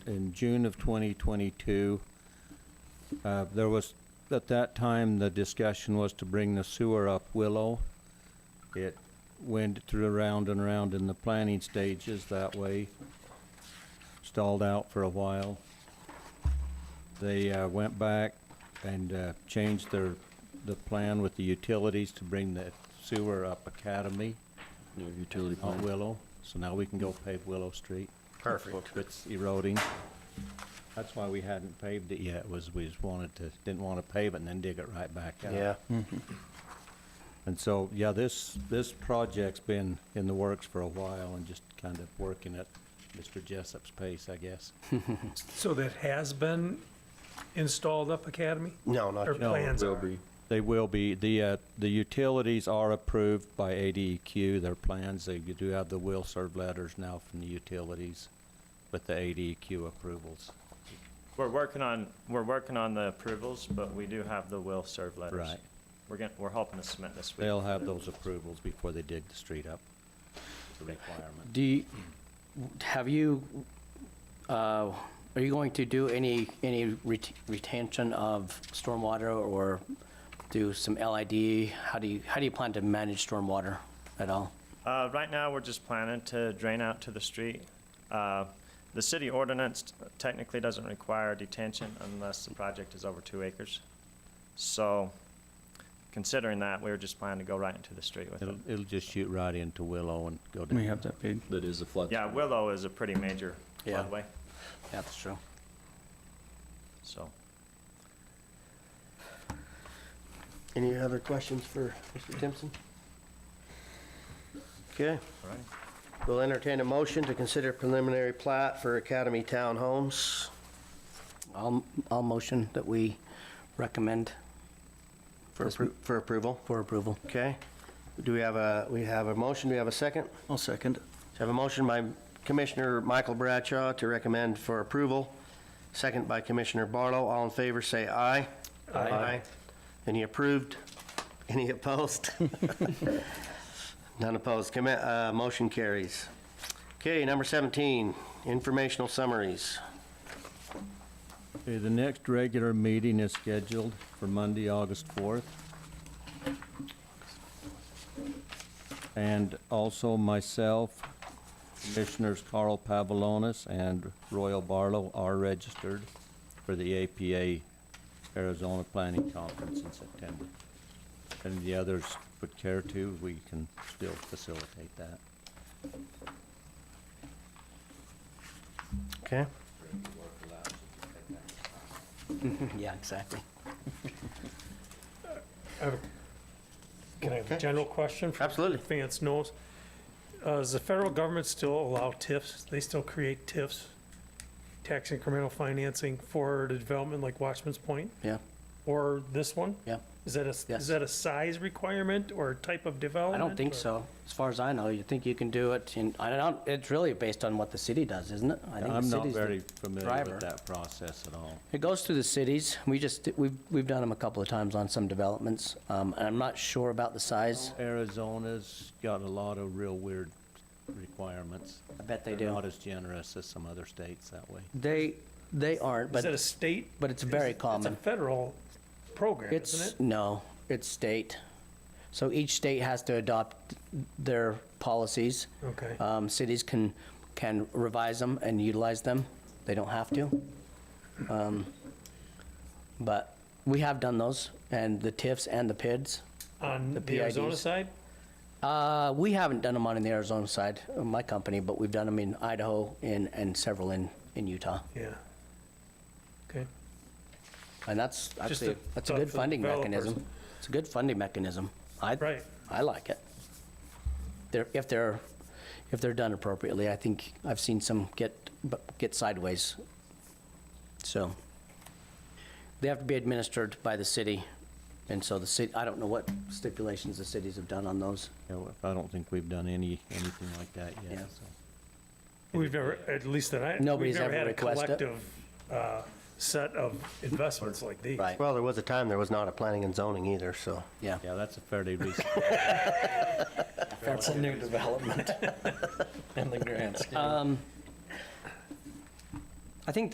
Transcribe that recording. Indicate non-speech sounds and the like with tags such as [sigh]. in June of 2022. Uh, There was, at that time, the discussion was to bring the sewer up Willow. It went through round and round in the planning stages that way, stalled out for a while. They uh, went back and uh, changed their, the plan with the utilities to bring the sewer up Academy, No utility not plan. Willow. So now we can go pave Willow Street. Perfect. It's eroding. That's why we hadn't paved it yet, was we just wanted to, didn't want to pave it and then dig it right back out. Yeah, And so, yeah, this, this project's been in the works for a while and just kind of working at Mr. Jessup's pace, I guess. So that has been installed up Academy? no, not Or yet. plans Will are? be. They will be, the, uh, the utilities are approved by ADEQ, their plans, they do have the will serve letters now from the utilities with the ADEQ approvals. We're working on, we're working on the approvals, but we do have the will serve letters. Right. We're getting, we're hoping to submit this week. They'll have those approvals before they dig the street up, the requirement. Do, you- have you, uh, are you going to do any, any ret- retention of stormwater or do some LID? How do you, how do you plan to manage stormwater at all? Uh, right now, we're just planning to drain out to the street. Uh, the city ordinance technically doesn't require detention unless the project is over two acres. So considering that, we were just planning to go right into the street with it. It'll, it'll just shoot right into Willow and go down. We have that paid. That is a flood. Yeah, Willow is a pretty major Yeah. floodway, That's true. so. Any other questions for Mr. Timpson? Okay. We'll entertain a motion to consider preliminary plat for Academy Townhomes. I'll, I'll motion that we recommend For Yes, appro- for approval, for approval. okay? Do we have a, we have a motion, do we have a second? I'll second. So I have a motion by Commissioner Michael Bradshaw to recommend for approval, second by Commissioner Barlow. All in favor, say aye. Aye. Any approved? [laughs] Any opposed? [laughs] None opposed. Commi- uh, Motion carries. Okay, number 17, informational summaries. Okay, the next regular meeting is scheduled for Monday, August 4th. And also myself, Commissioners Carl Pavalonis and Royal Barlow are registered for the APA Arizona Planning Conference in September. And the others would care to, we can still facilitate that. Okay? [laughs] Yeah, exactly. Can I have Okay. a general question? for Absolutely. Vance knows. Uh, Does the federal government still allow TIFs? They still create TIFs, tax incremental financing for the development like Watchman's Point Yeah, or this one? yeah. Is that a, Yes. is that a size requirement or type of I development? don't think or- so. As far as I know, you think you can do it in, I don't, it's really based on what the city does, isn't it? I think the I'm not city's the very familiar driver. with that process at all. It goes through the cities. We just, we've, we've done them a couple of times on some developments. Um, and I'm not sure about the size. Arizona's got a lot of real weird requirements. I bet they They're do. not as generous as some other states that way. They, they aren't, Is that a but state? but it's very Is it- common. It's a federal program, isn't it? it's, no, it's state. So each state has to adopt their policies. Okay. Um, cities can, can revise them and utilize them. They don't have to. Um, But we have done those and the TIFs and the PIDs. On the the Arizona PIDs. side? Uh, we haven't done them on in the Arizona side, uh, my company, but we've done them in Idaho and, and several in, in Utah. Yeah. Okay. And that's Just actually, a that's a thought good for funding developers. mechanism. It's a good funding mechanism. I, Right. I like it. They're, if they're, if they're done appropriately, I think I've seen some get, bu- get sideways. So they have to be administered by the city. And so the city, I don't know what stipulations the cities have done on those. You know, I don't think we've done any, anything like that yet, Yeah. so. We've never, at least that I, Nobody's we've never ever had a requested it. collective uh, set of investments like these. Right, Well, there was a time there was not a planning and zoning either, so. yeah. Yeah, that's a fairly recent, That's a new [laughs] development in the grants. Um, I think